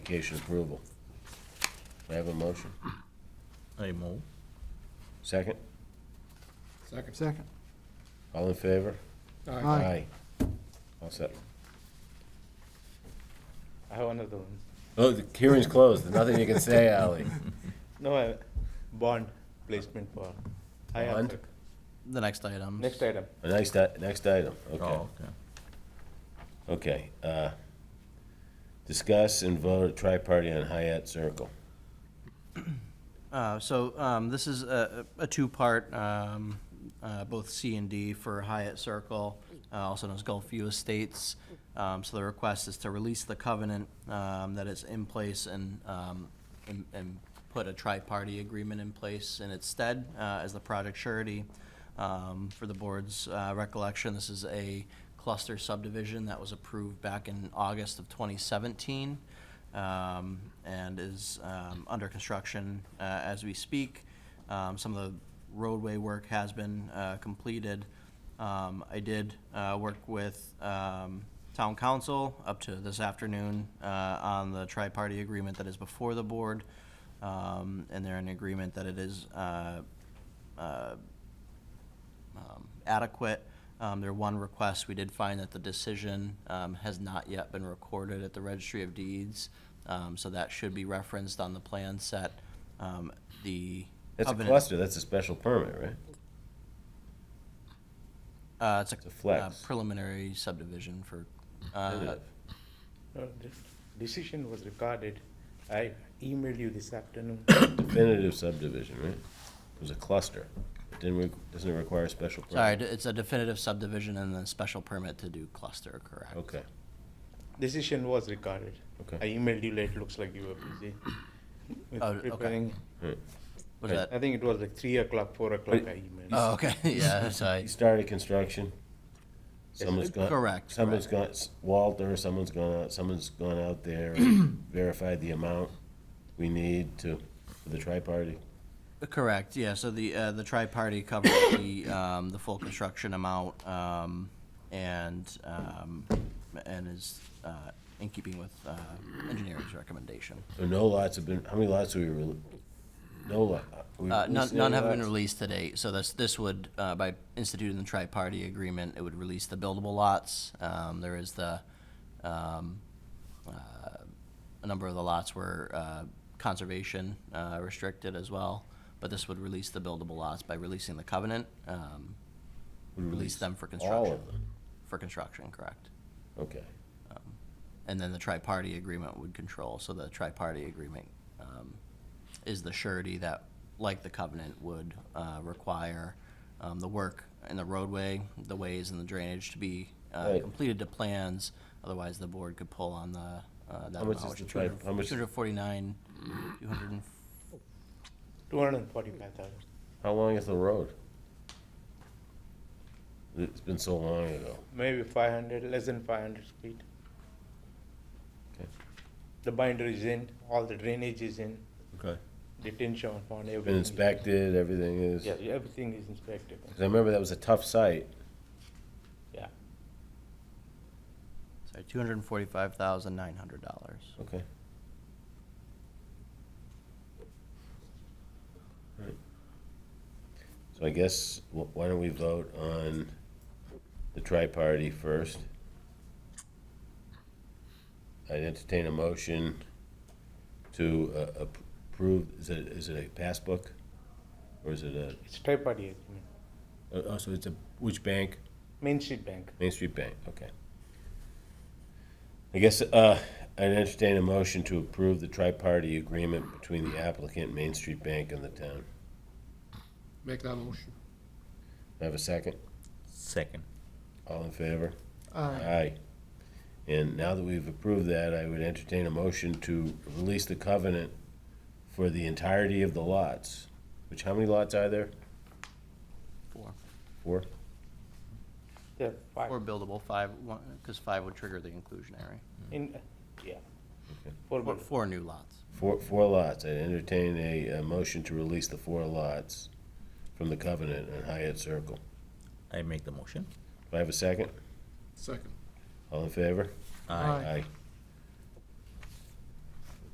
application approval. May I have a motion? I move. Second? Second. Second. All in favor? Aye. Aye. All set. I have another one. Oh, the hearing's closed. There's nothing you can say, Ally. No, I, bond placement for. I have Bond? that. The next item. Next item. The Next, i- next item, okay. Oh, okay. Okay. uh, Discuss and vote a tri-party on Hyatt Circle. Uh, So um, this is a a two-part, um, uh, both C and D for Hyatt Circle, uh, also known as Gulfview Estates. Um, So the request is to release the covenant um, that is in place and, um, and- and put a tri-party agreement in place in its stead uh, as the project surety. Um, For the board's uh, recollection, this is a cluster subdivision that was approved back in August of 2017 um, and is um, under construction uh, as we speak. Um, Some of the roadway work has been uh, completed. Um, I did uh, work with um, town council up to this afternoon uh, on the tri-party agreement that is before the board. Um, And they're in agreement that it is uh, uh, um, adequate. Um, Their one request, we did find that the decision um, has not yet been recorded at the Registry of Deeds, um, so that should be referenced on the plan set. Um, The That's a covenant- cluster, that's a special permit, right? Uh, it's a It's a flex. uh, preliminary subdivision for, uh, Definitive. No, the decision was recorded. I emailed you this afternoon. Definitive subdivision, right? It was a cluster. It Didn't, re- doesn't it require a special permit? sorry, it's a definitive subdivision and then special permit to do cluster, correct? Okay, Decision was recorded. Okay. I emailed you late, looks like you were busy with Oh, okay. Uh, preparing. Was Right. that, I think it was like three o'clock, four o'clock I oh, emailed. okay, yeah, you sorry. started construction. Someone's gone. Correct, Someone's correct. gone, Walter, someone's gone out, someone's gone out there, verified the amount we need to, for the tri-party. Correct, yeah, so the, uh, the tri-party covered the, um, the full construction amount, um, and, um, and is, uh, in keeping with, uh, engineering's recommendation. So no lots have been, how many lots have we, rel- no lot? we Uh, none, released none any have been lots? released to date, so this, this would, uh, by instituting the tri-party agreement, it would release the buildable lots. Um, there is the, um, uh, a number of the lots were, uh, conservation, uh, restricted as well, but this would release the buildable lots by releasing the covenant, um, We release them for All construction, of them, for construction, correct. okay. And then the tri-party agreement would control, so the tri-party agreement um, is the surety that, like the covenant, would uh, require um, the work in the roadway, the ways and the drainage to be uh, Right. completed to plans, otherwise the board could pull on the, uh, that How much amount, is which the is tri- how much- 249, 200, Two hundred and forty-five thousand. How long is the road? It's been so long ago. Maybe five hundred, less than five hundred feet. Okay. The binder is in, all the drainage is in, Okay. detention pond, everything. Been is- inspected, everything is. Yeah, everything is inspected. 'Cause I remember that was a tough site. Yeah. sorry, $245,900. Okay. Alright. So I guess, wh- why don't we vote on the tri-party first? I'd entertain a motion to uh, ap- approve, is it, is it a passbook? Or is it a, It's tri-party agreement. oh, oh, so it's a, which bank? Main Street Bank. Main Street Bank, okay. I guess uh, I'd entertain a motion to approve the tri-party agreement between the applicant, Main Street Bank, and the town. Make that motion. I Have a second? Second. All in favor? Aye. Aye. And now that we've approved that, I would entertain a motion to release the covenant for the entirety of the lots, which, how many lots are there? Four. Four? Yeah, five. Or buildable, five, because five would trigger the inclusionary. In, yeah. Four Four- buildings. Four new lots. Four, four lots. I'd entertain a, uh motion to release the four lots from the covenant on Hyatt Circle. I make the motion. Do I have a second? Second. All in favor? Aye. Aye.